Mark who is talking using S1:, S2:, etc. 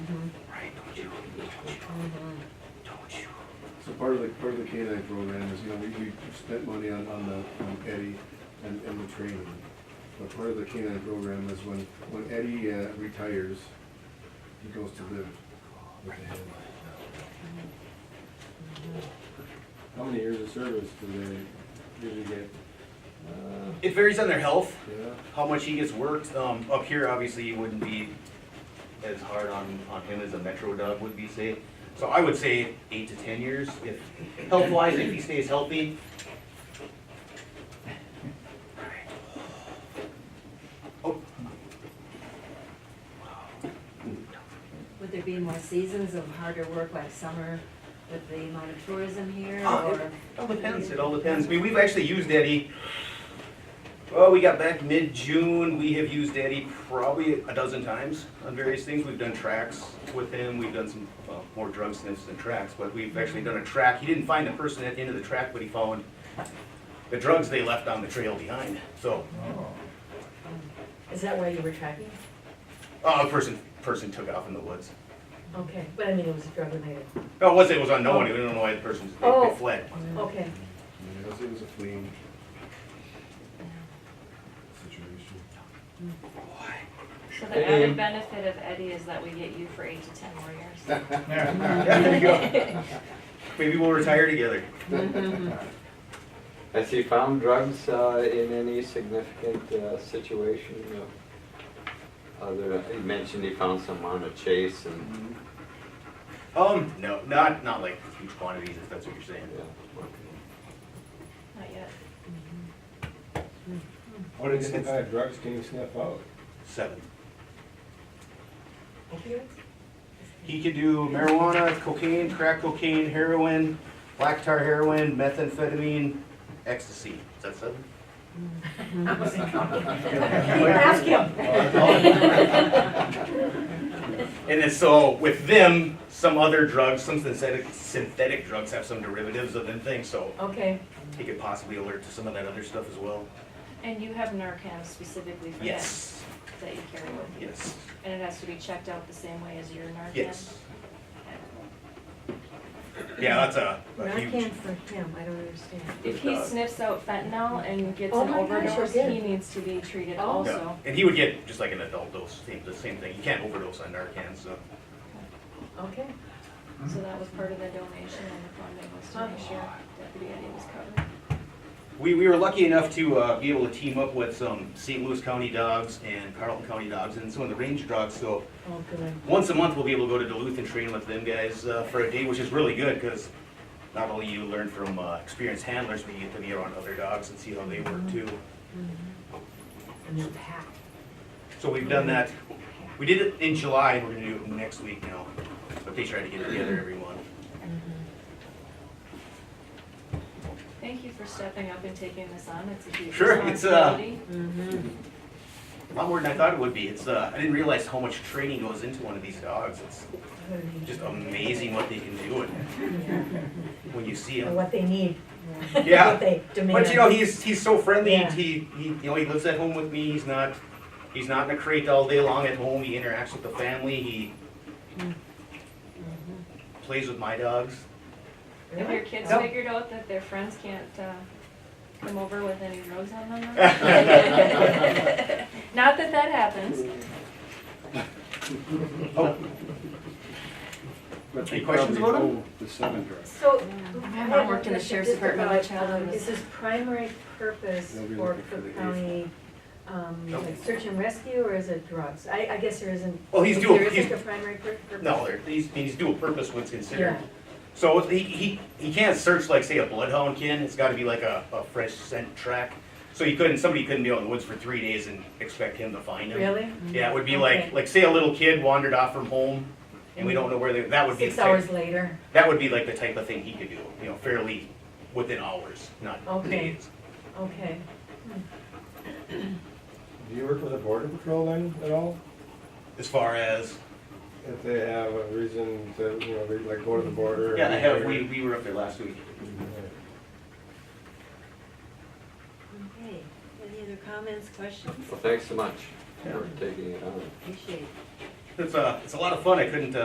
S1: So part of the, part of the canine program is, you know, we, we spent money on, on the, on Eddie and, and the training. But part of the canine program is when, when Eddie uh, retires, he goes to live with the head. How many years of service do they usually get? Uh,
S2: It varies on their health,
S1: Yeah,
S2: how much he gets worked. Um, up here, obviously, you wouldn't be as hard on, on him as a metro dog would be, say. So I would say eight to ten years, if, health-wise, if he stays healthy. Oh,
S3: Would there be more seasons of harder work like summer with the amount of tourism here
S2: Uh,
S3: or?
S2: It all depends, it all depends. I mean, we've actually used Eddie, well, we got back mid-June, we have used Eddie probably a dozen times on various things. We've done tracks with him, we've done some, well, more drug sniffs than tracks, but we've actually done a track. He didn't find the person at the end of the track, but he found the drugs they left on the trail behind, so,
S4: Is that why you were tracking?
S2: uh, a person, person took off in the woods.
S4: Okay, but I mean, it was drug related.
S2: No, it wasn't, it was unknown, we don't know why the person, they-
S4: Oh.
S2: they fled.
S4: Okay,
S1: I guess it was a fleeing situation.
S5: So the added benefit of Eddie is that we get you for eight to ten more years.
S2: Yeah, there you go. Maybe we'll retire together.
S6: Has he found drugs uh, in any significant uh, situation? of Other, he mentioned he found some on a chase and,
S2: Um, no, not, not like huge quantities, if that's what you're saying.
S6: yeah. okay.
S5: Not yet.
S7: What identify of drugs can you sniff out?
S2: Seven.
S4: opioids?
S2: He could do marijuana, cocaine, crack cocaine, heroin, black tar heroin, methamphetamine, ecstasy. Is that seven?
S4: I wasn't counting. Ask him.
S2: And then so with them, some other drugs, some synthetic, synthetic drugs have some derivatives of them things, so
S4: Okay,
S2: he could possibly alert to some of that other stuff as well.
S5: And you have Narcan specifically for that,
S2: Yes,
S5: that you carry with you?
S2: yes,
S5: And it has to be checked out the same way as your Narcan?
S2: yes. Yeah, that's a, a huge.
S4: Narcan for him, I don't understand.
S5: If he
S2: Uh,
S5: sniffs out fentanyl and gets
S4: Oh
S5: an
S4: my gosh, I
S5: overdose,
S4: did.
S5: he needs to be treated
S4: Oh.
S2: Yeah,
S5: also.
S2: and he would get just like an adult dose, same, the same thing. You can't overdose on Narcan, so.
S4: Okay,
S2: Mm-hmm.
S5: So that was part of the donation and the funding was to make sure
S2: Oh.
S5: Deputy Eddie was covered.
S2: We, we were lucky enough to uh, be able to team up with some St. Louis County dogs and Carlton County dogs and some of the range dogs. So
S4: oh, good.
S2: once a month, we'll be able to go to Duluth and train with them guys uh, for a day, which is really good because not only you learn from uh, experienced handlers, but you get to be around other dogs and see how they work too.
S4: And they're packed.
S2: So we've done that. We did it in July, and we're gonna do it next week now. But they try to get together every month.
S5: Thank you for stepping up and taking this on. It's a huge
S2: Sure,
S5: responsibility.
S2: it's, uh,
S3: Mm-hmm. Oh.
S2: A lot more than I thought it would be. It's uh, I didn't realize how much training goes into one of these dogs. It's just amazing what they can do and when you see
S4: Or
S2: him.
S4: what they need.
S2: Yeah.
S4: What they demand.
S2: But you know, he's he's so friendly.
S4: Yeah.
S2: He, he you know he lives at home with me. He's not he's not in a crate all day long at home. He interacts with the family. He
S4: Mm-hmm.
S2: plays with my dogs.
S5: Have your kids
S2: Yeah.
S5: figured out that their friends can't uh, come over with any drugs on them? Not that that happens.
S2: Oh,
S1: But
S2: Any
S1: they
S2: questions
S1: probably
S2: about 'em?
S1: know The seven drugs.
S4: So.
S5: My mom worked in the sheriff's department when my child was-
S4: um, Is his primary purpose
S1: They'll be
S4: for
S1: looking for
S4: Cook
S1: the
S4: County, um,
S2: Nope.
S4: like search and rescue, or is it drugs? I, I guess there isn't.
S2: Well, he's dual-
S4: There isn't
S2: he's-
S4: a primary pur- purpose?
S2: no, they're- he's he's dual purpose when it's considered.
S4: Yeah.
S2: So he, he, he can't search like, say, a bloodhound can, it's gotta be like a, a fresh scent track. So you couldn't, somebody couldn't be out in the woods for three days and expect him to find him.
S4: Really?
S2: Yeah, it would be
S4: Okay.
S2: like, like, say a little kid wandered off from home, and we don't know where they, that would be.
S4: Six
S2: the type-
S4: hours later,
S2: That would be like the type of thing he could do, you know, fairly within hours, not
S4: Okay.
S2: days.
S4: okay.
S7: Do you work with the border patrol then at all?
S2: As far as,
S7: If they have a reason to, you know, they, like go to the border? or-
S2: yeah, I have, we, we were up there last week.
S3: Okay, any other comments, questions?
S6: Well, thanks so much
S2: Yeah.
S6: for taking it on.
S3: Appreciate it.
S2: It's, uh, it's a lot of fun, I couldn't, uh,